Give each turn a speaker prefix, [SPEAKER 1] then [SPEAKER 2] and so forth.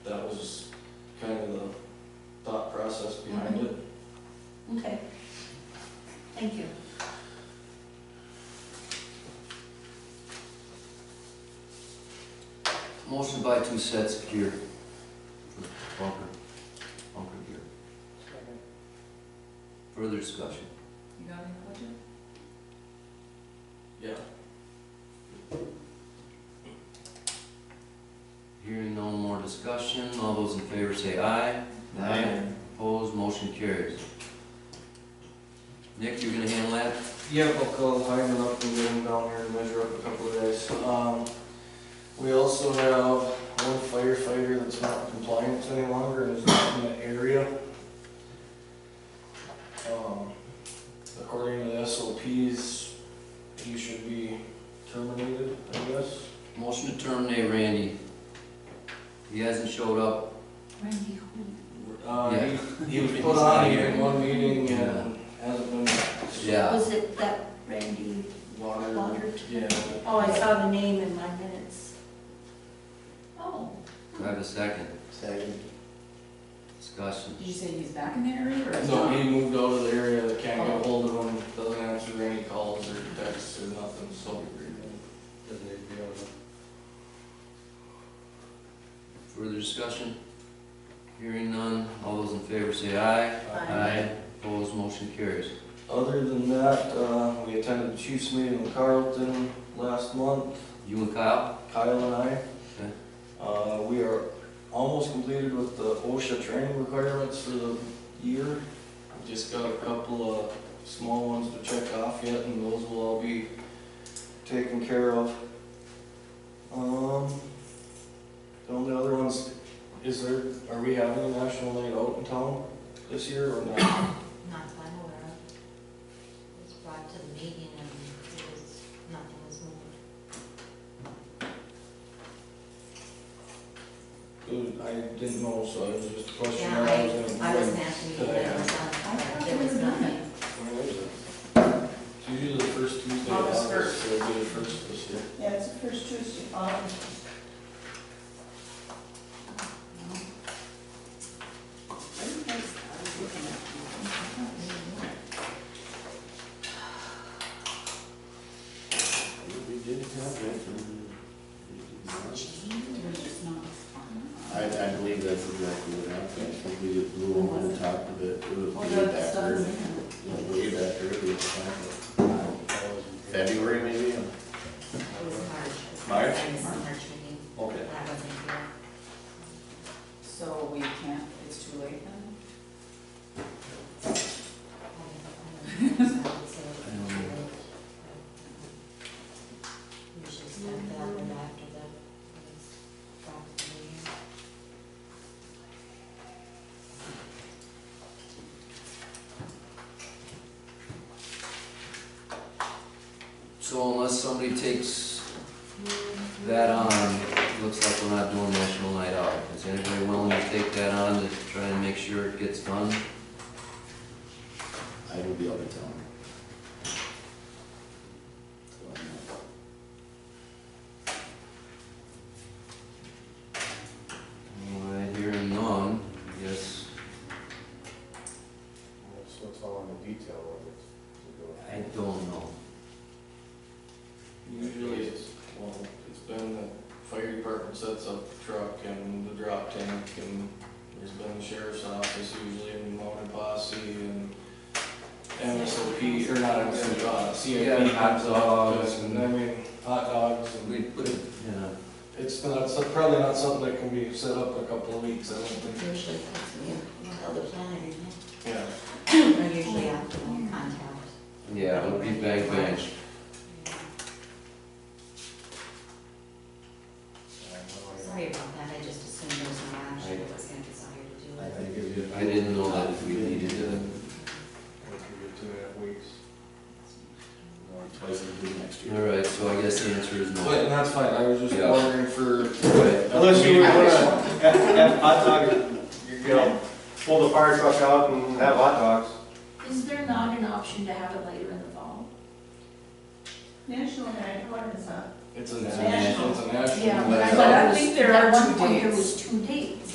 [SPEAKER 1] to buy two sets of gear for bunker, bunker gear. Further discussion?
[SPEAKER 2] You got any questions?
[SPEAKER 3] Yeah.
[SPEAKER 1] Hearing no more discussion, all those in favor say aye. Opposed, motion carries. Nick, you're gonna handle that?
[SPEAKER 3] Yep, I'll call Hyman up and get him down here and measure up a couple of days. Um, we also have one firefighter that's not compliant any longer and is not in the area. Um, according to the SOPs, he should be terminated, I guess.
[SPEAKER 1] Motion to terminate Randy. He hasn't showed up.
[SPEAKER 2] Randy, who?
[SPEAKER 3] Uh,
[SPEAKER 1] Yeah.
[SPEAKER 3] he, he was put on here in one meeting and hasn't been.
[SPEAKER 1] Yeah,
[SPEAKER 4] Was it that Randy
[SPEAKER 3] Water,
[SPEAKER 4] Goddard?
[SPEAKER 3] yeah.
[SPEAKER 4] Oh, I saw the name in my minutes.
[SPEAKER 2] Oh,
[SPEAKER 1] do I have a second?
[SPEAKER 5] Second.
[SPEAKER 1] Discussion.
[SPEAKER 2] did you say he's back in the area or?
[SPEAKER 3] No, he moved out of the area, they can't get hold of him, doesn't answer any calls or texts or nothing, so.
[SPEAKER 5] Doesn't need to be on
[SPEAKER 1] Further discussion? Hearing none, all those in favor say aye. Opposed, motion carries.
[SPEAKER 3] Other than that, uh, we attended the Chiefs meeting in Carlton last month,
[SPEAKER 1] You and Kyle?
[SPEAKER 3] Kyle and I.
[SPEAKER 1] Okay.
[SPEAKER 3] Uh, we are almost completed with the OSHA training requirements for the year. We Just got a couple of small ones to check off yet, and those will all be taken care of. Um, the only other ones, is there, are we having a national night out in town this year or not?
[SPEAKER 6] Not that I'm aware of. It was brought to the meeting and it was, nothing was moved.
[SPEAKER 3] Dude, I didn't know, so it was just a question.
[SPEAKER 6] Yeah,
[SPEAKER 3] I was gonna
[SPEAKER 6] I, I was
[SPEAKER 3] bring.
[SPEAKER 6] not at the meeting, I was on,
[SPEAKER 2] thought
[SPEAKER 6] there
[SPEAKER 2] we
[SPEAKER 6] was
[SPEAKER 2] were done.
[SPEAKER 6] nothing.
[SPEAKER 3] Where is it? It's usually Oh, the first Tuesday of
[SPEAKER 2] August
[SPEAKER 3] August, so it'll be the first this year.
[SPEAKER 2] Yeah, it's the first Tuesday, um,
[SPEAKER 5] We did have it.
[SPEAKER 2] it's not.
[SPEAKER 5] I, I believe that's exactly what happened, I think we blew over the top of it, it was
[SPEAKER 2] Well,
[SPEAKER 5] way
[SPEAKER 2] the
[SPEAKER 5] back
[SPEAKER 2] stuff's
[SPEAKER 5] early.
[SPEAKER 2] in there.
[SPEAKER 5] It was Way back early, it's kind of- February maybe,
[SPEAKER 6] It was March.
[SPEAKER 5] March?
[SPEAKER 6] I was on March meeting,
[SPEAKER 5] okay.
[SPEAKER 6] that wasn't here.
[SPEAKER 2] So we can't, it's too late then?
[SPEAKER 6] You should send that one after the, brought to the meeting.
[SPEAKER 1] So unless somebody takes that on, it looks like we're not doing National Night Out. Is anybody willing to take that on to try and make sure it gets done?
[SPEAKER 5] I will be out of town. So I'm not-
[SPEAKER 1] All right, hearing none, yes.
[SPEAKER 7] So it's all in the detail of it.
[SPEAKER 1] I don't know.
[SPEAKER 3] Usually it's, well, it's been the fire department sets up the truck and the drop tank and there's been the sheriff's office usually and mounted posse and MSOP, or not MSOP, uh,
[SPEAKER 1] Yeah,
[SPEAKER 3] CIP
[SPEAKER 1] hot
[SPEAKER 3] comes
[SPEAKER 1] dogs
[SPEAKER 3] up and, I mean, hot dogs
[SPEAKER 1] We
[SPEAKER 3] and
[SPEAKER 1] put it in a,
[SPEAKER 3] it's not, it's probably not something that can be set up in a couple of weeks, I don't think.
[SPEAKER 6] Usually, that's me, well, the planner, isn't
[SPEAKER 3] Yeah.
[SPEAKER 6] it? Or usually after the contact.
[SPEAKER 1] yeah, it would be bang bang.
[SPEAKER 6] Sorry about that, I just assumed there was no action, it was gonna desire to do
[SPEAKER 5] I
[SPEAKER 6] it.
[SPEAKER 5] think if you-
[SPEAKER 1] I didn't know that we needed to-
[SPEAKER 7] Once we get to that weeks.
[SPEAKER 5] Or Twice as big next year.
[SPEAKER 1] All right, so I guess the answer is
[SPEAKER 3] But
[SPEAKER 1] no.
[SPEAKER 3] that's fine, I was just
[SPEAKER 1] Yeah.
[SPEAKER 3] wondering for.
[SPEAKER 1] Right.
[SPEAKER 7] Unless you
[SPEAKER 3] were
[SPEAKER 7] were
[SPEAKER 3] gonna-
[SPEAKER 7] gonna have hot dog, you're gonna pull the fire truck out and have hot dogs.
[SPEAKER 4] Is there not an option to have it later in the fall?
[SPEAKER 2] National night, what is that?
[SPEAKER 3] It's a
[SPEAKER 1] It's a
[SPEAKER 3] national, it's a national.
[SPEAKER 4] Yeah,
[SPEAKER 5] But
[SPEAKER 4] but I
[SPEAKER 2] I
[SPEAKER 4] was-
[SPEAKER 2] think there
[SPEAKER 4] at
[SPEAKER 2] are
[SPEAKER 4] one
[SPEAKER 2] two
[SPEAKER 4] point There
[SPEAKER 2] dates.
[SPEAKER 4] was two dates.